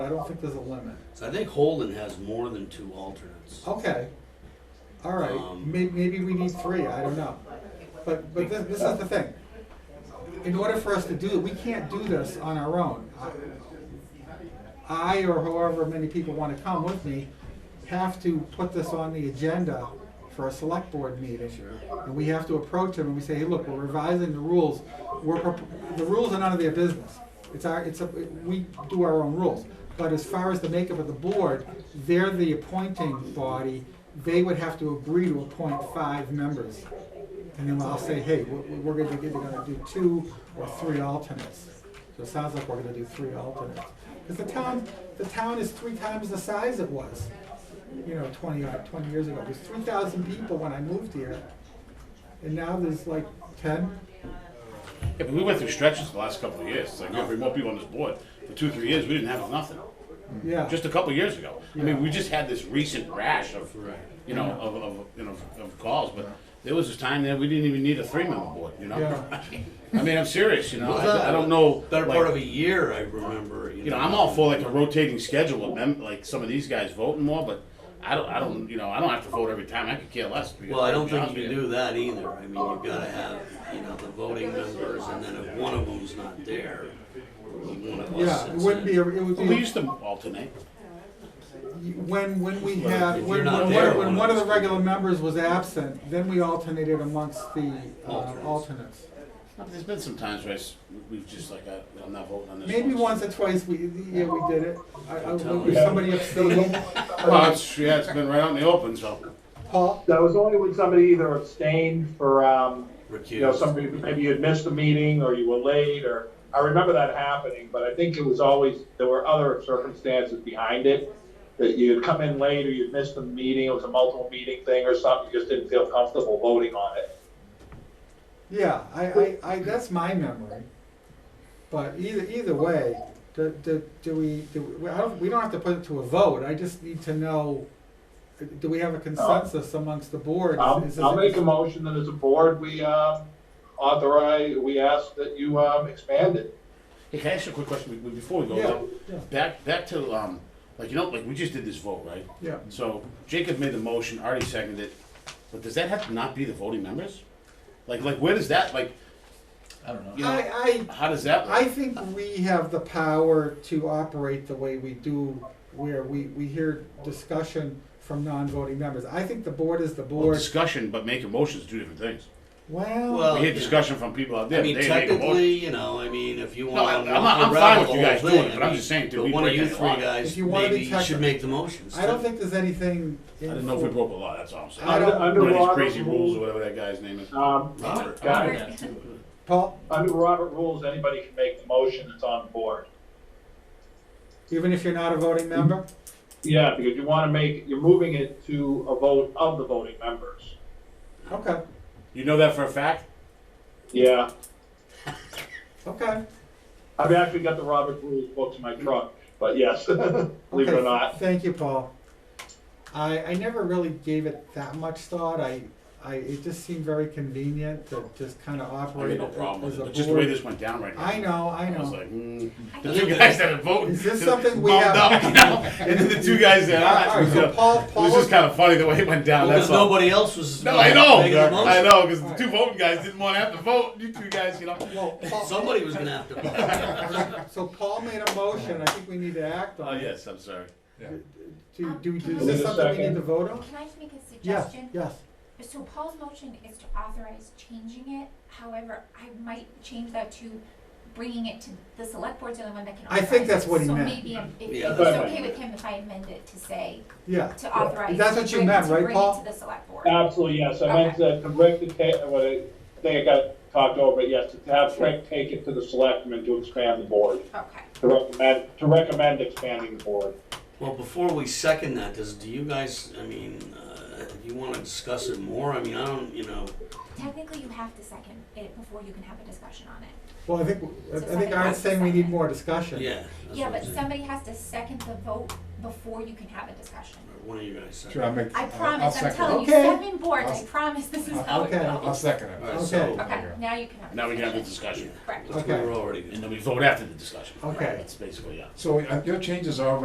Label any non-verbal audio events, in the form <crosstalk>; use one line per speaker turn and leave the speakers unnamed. I don't think there's a limit.
So I think Holden has more than two alternates.
Oh,
Okay, all right,
Um,
may, maybe we need three, I don't know. But, but this, this is the thing. In order for us to do, we can't do this on our own. I or however many people wanna come with me have to put this on the agenda for a select board meeting. And we have to approach them and we say, hey, look, we're revising the rules, we're, prop- the rules are none of their business. It's our, it's, a we do our own rules. But as far as the makeup of the board, they're the appointing body, they would have to agree to appoint five members. And then I'll say, hey, we're, we're gonna, either gonna do two or three alternates. So it sounds like we're gonna do three alternates. Cause the town, the town is three times the size it was, you know, twenty, odd- twenty years ago. There's three thousand people when I moved here. And now there's like ten.
Yeah, but we went through stretches the last couple of years. It's like we have more people on this board. For two, three years, we didn't have nothing.
Yeah,
Just a couple of years ago. I mean, we just had this recent rash of,
Right.
you know, of, of, you know, of calls, but there was this time that we didn't even need a three-member board, you know?
Yeah.
<laughs> I mean, I'm serious, you know, I, I don't know.
Better
like,
part of a year, I remember.
You know, I'm all for like a rotating schedule of them, like some of these guys voting more, but I don't, I don't, you know, I don't have to vote every time. I could care less. because-
Well, I don't
to be
think you
honest
can
with
do that either. I mean, you've gotta have, you know, the voting members, and then if one of them's not there, one of us
yeah, it
sits
wouldn't be,
in.
a- it would
Well, we
be,
used to alternate.
when, when we had,
If
when,
you're not
when,
there,
one- when
one
one of
of
the
us-
regular members was absent, then we alternated amongst the uh,
Alternates.
alternates.
There's been some times where I s- we've just like, I- I'm not voting on this.
Maybe
one.
once or twice we, yeah, we did it. I, I,
Tell
was
me.
somebody abstaining.
Well, it's, yeah, it's been right out in the open, so.
Paul?
That was only when somebody either abstained for, um, you know,
Recused.
somebody, maybe you had missed a meeting or you were late or, I remember that happening, but I think it was always, there were other circumstances behind it. That you had come in late or you'd missed a meeting, it was a multiple meeting thing or something, you just didn't feel comfortable voting on it.
Yeah, I, I, I, that's my memory. But either, either way, do, do, do we, do, we- I don't, we don't have to put it to a vote, I just need to know, do we have a consensus amongst the board?
I'll,
Is- is-
Um, I'll make a motion that as a board, we, um, authorize, we ask that you, um, expand it.
Hey, can I ask you a quick question be- before we go?
Yeah,
Like,
yeah,
Back, back to, um, like, you know, like, we just did this vote, right?
yeah.
So Jacob made the motion, Artie seconded it, but does that have to not be the voting members? Like, like, where does that, like,
I don't know.
you know,
I,
how does that
I, I
work?
think we have the power to operate the way we do, where we, we hear discussion from non-voting members. I think the board is the
Well,
board.
discussion, but making motions, do different things.
Well,
Well,
We hear
yeah.
discussion from people out
I
there, they
mean,
make a motion.
technically, you know, I mean, if you
No, I-
want
I'm
to
not-
walk
I'm fine
around
with
the
you
whole
guys doing it,
thing,
but I'm
I mean,
just saying, do
but
we
one of
break
you
any
three
law?
guys,
If you wanna be
maybe you should
technical.
make the motions.
I don't think there's anything.
I didn't know if we broke a law, that's all I'm
I
saying.
don't-
One
Under
of these
Robert's
crazy rules or
rules,
whatever that guy's name is.
um,
Robert.
guys,
Yeah, too.
Paul,
Under Robert rules, anybody can make the motion that's on the board.
even if you're not a voting member?
Yeah, because you wanna make, you're moving it to a vote of the voting members.
Mm-hmm.
Okay,
You know that for a fact?
Yeah,
okay.
I've actually got the Robert rules books in my trunk, but yes, <laughs> believe it
Okay,
or not.
Thank you, Paul. I, I never really gave it that much thought. I, I, it just seemed very convenient to just kind of
I got
operate
no
it
problem
as
with
a
it, but just the way
board.
this went down right now.
I know, I
I was
know.
like, <laughs> hmm. The
I
two
think
guys that are voting.
Is this
<laughs> just
something we
bummed
have-
up,
<laughs>
you know? And then the two guys that
All
aren't.
right,
you
so
know?
Paul-
It was
Paul-
just kind of funny the way it went down,
Because
that's all.
nobody else was.
No, I know,
making the
I
motion.
know, because the
Alright.
two voting guys didn't want to have to vote, you two guys, you know?
<laughs> Well, Paul-
Somebody was gonna have to.
So Paul made a motion, I think we need to act
Oh,
on it.
yes, I'm sorry.
Do, do, do- is
Is
this
it Um, a
something we need
second?
to vote on?
Can I just make a
Yeah,
suggestion?
yes.
So Paul's motion is to authorize changing it, however, I might change that to bringing it to, the select board's the only one that can
I
authorize.
think that's
it.
what he
So
meant.
maybe if, if
Yeah,
if
that's
it's
what he
okay with him if I amend it to say,
Yeah,
to authorize.
That's what you
bring-
meant,
to
right,
bring it
Paul?
To the select board.
Absolutely, yes, I meant to direct the ta, what I, I think I got talked over, but yes, to have Rick take it to the selectmen to expand the board,
Okay.
to recommend, to recommend expanding the board.
Well, before we second that, does, do you guys, I mean, uh, if you wanna discuss it more, I mean, I don't, you know,
Technically, you have to second it before you can have a discussion on it.
Well, I think, I think Aaron's saying we need more discussion.
yeah. that's
Yeah,
what I'm
but
saying.
somebody has to second the vote before you can have a discussion.
One of you guys said.
Sure, I'll make.
I
I'll- I'll
promise, I'm
second it.
telling you,
Okay.
seven boards, I
I'll-
promise this is how it
Okay.
I'll
goes.
second
All right,
it.
Okay.
so,
Okay, now you can have. a
Now we can have the discussion,
Correct.
that's what
Okay.
we're already.
and then we vote after the discussion.
Okay.
That's basically, yeah.
So uh, your changes are